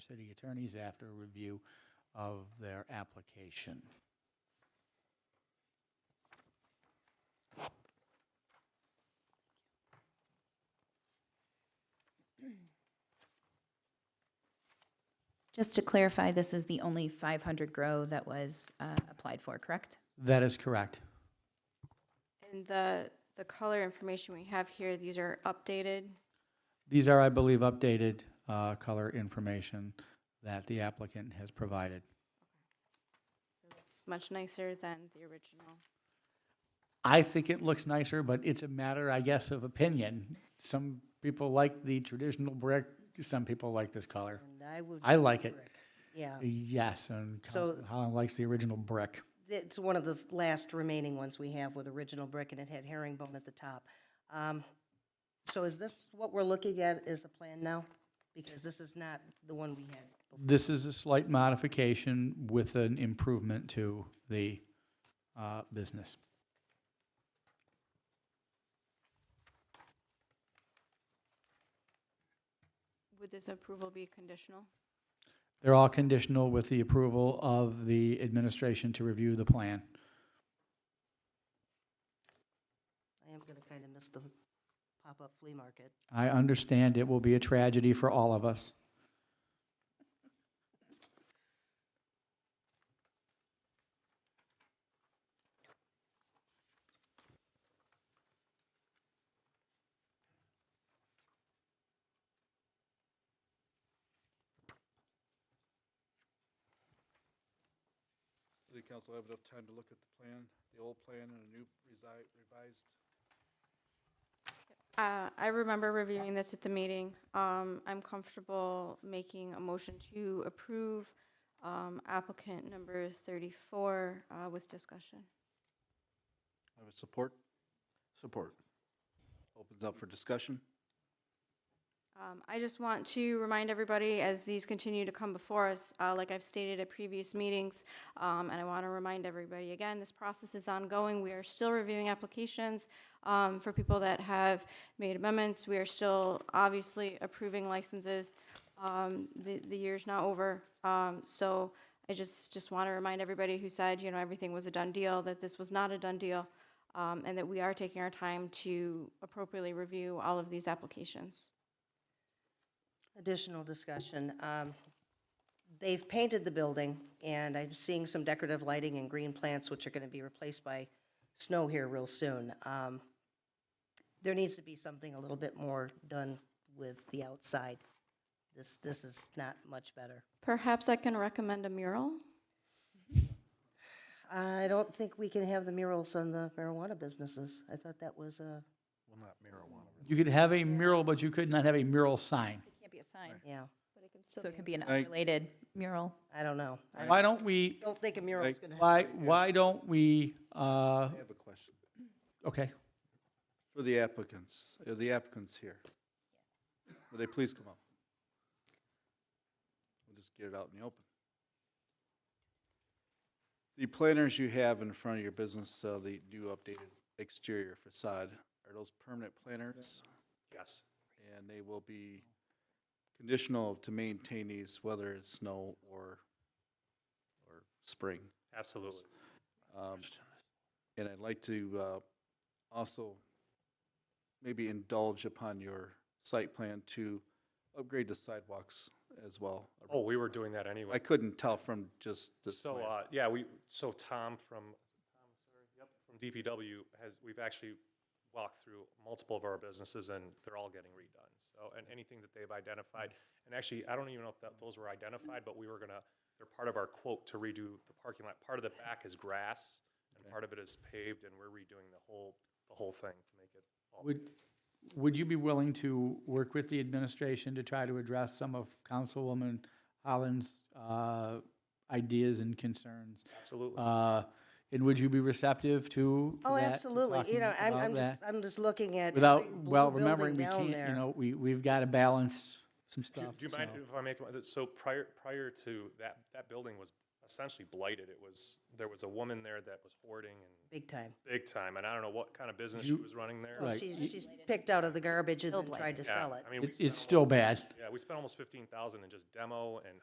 city attorneys after a review of their application. Just to clarify, this is the only 500 grow that was uh, applied for, correct? That is correct. And the, the color information we have here, these are updated. These are, I believe, updated uh, color information that the applicant has provided. It's much nicer than the original. I think it looks nicer, but it's a matter, I guess, of opinion. Some people like the traditional brick, some people like this color. And I would, I like it. yeah, Yes, and So- Council- Holland likes the original brick. it's one of the last remaining ones we have with original brick, and it had herringbone at the top. Um, So is this what we're looking at is the plan now? Because this is not the one we had. This is a slight modification with an improvement to the uh, business. Would this approval be conditional? They're all conditional with the approval of the administration to review the plan. I am gonna kind of miss the pop-up flea market. I understand it will be a tragedy for all of us. City council have enough time to look at the plan, the old plan and a new resi- revised. Uh, I remember reviewing this at the meeting. Um, I'm comfortable making a motion to approve, um, applicant number thirty-four, uh, with discussion. I would support. Support. Opens up for discussion. Um, I just want to remind everybody, as these continue to come before us, uh, like I've stated at previous meetings, um, and I want to remind everybody again, this process is ongoing. We are still reviewing applications, um, for people that have made amendments. We are still obviously approving licenses. Um, the, the year's not over. Um, so I just, just want to remind everybody who said, you know, everything was a done deal, that this was not a done deal, um, and that we are taking our time to appropriately review all of these applications. Additional discussion. Um, They've painted the building, and I'm seeing some decorative lighting and green plants, which are gonna be replaced by snow here real soon. Um, There needs to be something a little bit more done with the outside. This, this is not much better. Perhaps I can recommend a mural? I don't think we can have the murals on the marijuana businesses. I thought that was a, Well, not marijuana. You could have a mural, but you could not have a mural sign. Can't be a sign. yeah, So it can be an I- unrelated mural. I don't know. I Why don't we, don't think a mural's gonna why, why don't we, uh, I have a question. okay. For the applicants, are the applicants here? Will they please come up? We'll just get it out in the open. The planters you have in front of your business, uh, the new updated exterior facade, are those permanent planters? Yes. And they will be conditional to maintain these, whether it's snow or, or spring. Absolutely. Um, And I'd like to uh, also maybe indulge upon your site plan to upgrade the sidewalks as well. Oh, we were doing that I anyway. couldn't tell from just the So, plan. uh, yeah, we, so Tom from, Tom, sorry, yep, from DPW has, we've actually walked through multiple of our businesses and they're all getting redone. So, and anything that they've identified, and actually, I don't even know if that, those were identified, but we were gonna, they're part of our quote to redo the parking lot. Part of the back is grass and part of it is paved and we're redoing the whole, the whole thing to make it all. Would, would you be willing to work with the administration to try to address some of Councilwoman Holland's, uh, ideas and concerns? Absolutely. Uh, and would you be receptive to Oh, that, to absolutely. You talking know, I'm, about I'm that? just, I'm just looking at. Without, every blue well, remembering, we building down can't, there. you know, we, we've got to balance some Do stuff. do you mind so. if I make, a- so prior, prior to that, that building was essentially blighted. It was, there was a woman there that was hoarding and Big time. big time, and I don't know what kind of business she was running there. Right. She, she's picked out of the garbage and then tried to Yeah, sell it. I mean, we It's, it's spent still almost- bad. Yeah, we spent almost fifteen thousand in just demo and